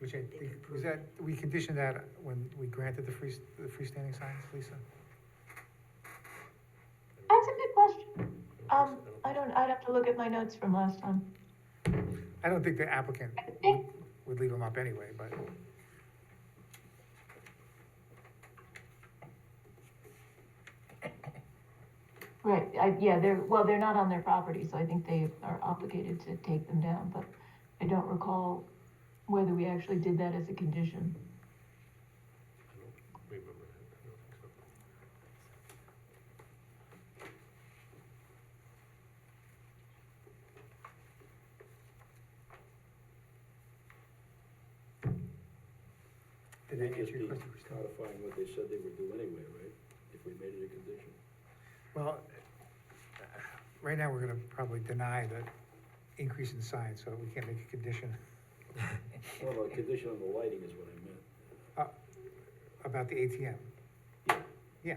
which I They think, could was that, we conditioned that when we granted the free, the freestanding signs, Lisa? That's a good question. Um, I don't, I'd have to look at my notes from last time. I don't think the applicant I think, would leave them up anyway, but, right, I, yeah, they're, well, they're not on their property, so I think they are obligated to take them down, but I don't recall whether we actually did that as a condition. I don't remember that, I don't think so. did They'd I just answer be your question, Christine? codifying what they said they would do anyway, right? If we made it a condition. Well, right now, we're gonna probably deny the increase in signs, so we can't make a condition No, no, a condition on the lighting is what I meant. uh, about the ATM. Yeah, Yeah.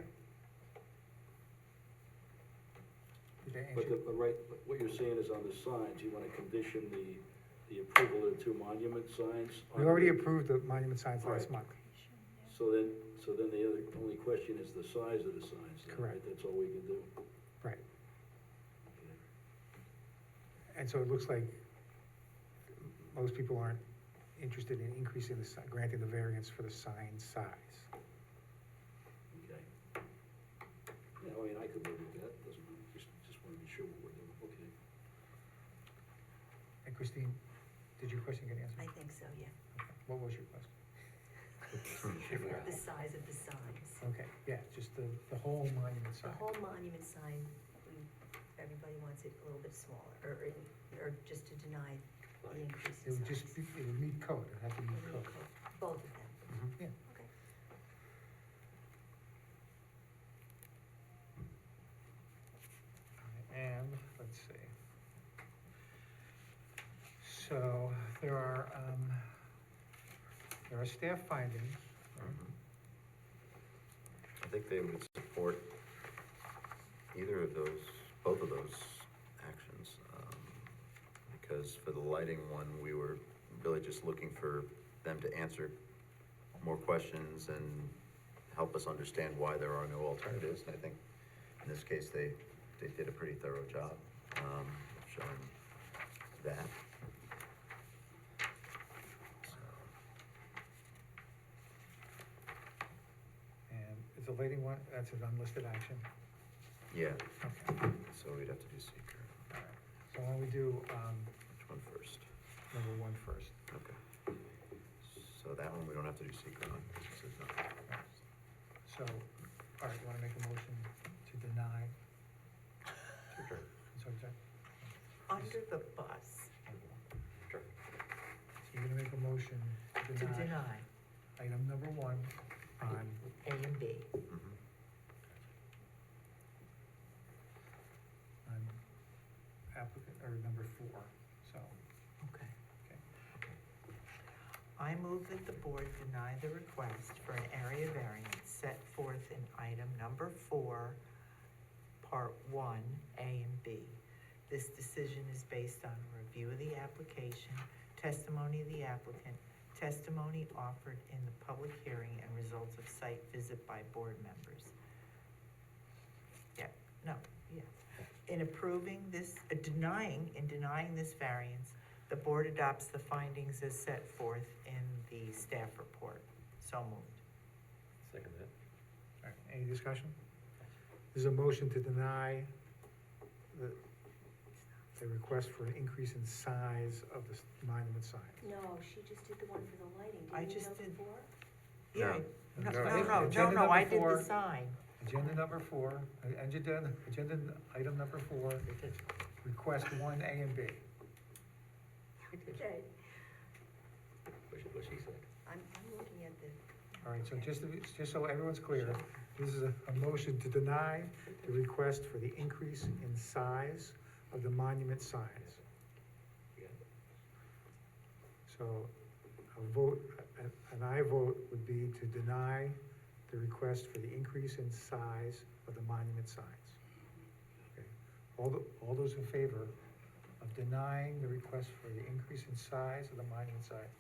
Did I but the, answer? but right, but what you're saying is on the signs, you wanna condition the, the approval of the two monument signs? on We already the- approved the monument signs last Right. month. So then, so then the other, only question is the size of the signs, then, right? Correct. That's all we can do. Right. And so it looks like most people aren't interested in increasing the, si- granting the variance for the sign size. Okay. Yeah, I mean, I could live with that, doesn't, matter. just, just wanna be sure what we're doing, okay. And Christine, did your question get I answered? think so, yeah. Okay. What was your question? The size of the signs. Okay, yeah, just the, the whole monument The sign. whole monument sign, we, everybody wants it a little bit smaller, or, or- or just to deny the increase It in would just, size. be- it would meet code, it would have to meet code. Both of them, Yeah, okay. and, let's see. So, there are, um, there are staff findings, Mm-hmm. I think they would support either of those, both of those actions. um, Because for the lighting one, we were really just looking for them to answer more questions and help us understand why there are no alternatives. And I think in this case, they, they did a pretty thorough job, um, of showing that. So. and is the lighting one, that's an unlisted action, Yeah, okay, so we'd have to do seeker. alright. So why don't we do, um, Which one first? number one first? Okay. So that one we don't have to do secret on, it says nothing. So, alright, wanna make a motion to deny, Sure, I'm sorry, Jack? Under the bus, sure. So you're gonna make a motion to to deny deny item number one on A and B. Mhm. on applicant, or number four, so, Okay. okay. I move that the board deny the request for an area variance set forth in item number four, part one, A and B. This decision is based on a review of the application, testimony of the applicant, testimony offered in the public hearing, and results of site visit by board members. Yeah, no, yeah. In approving this, uh, denying, in denying this variance, the board adopts the findings as set forth in the staff report. So moved. Second that. All right, any discussion? There's a motion to deny the, the request for an increase in size of the monument sign. No, she just did the one for the lighting, I didn't you just know did- before? Yeah. No, No, no, no, no, agenda no, I number did four. the sign. Agenda number four, uh, agenda, agenda item number four, request one A and B. Okay, What she, what she said. I'm, I'm looking at the. All right, so just, to be- just so everyone's clear, this is a, a motion to deny the request for the increase in size of the monument signs. You got it? So a vote, a- an aye vote would be to deny the request for the increase in size of the monument signs. Okay. All, tho- all those in favor of denying the request for the increase in size of the monument signs,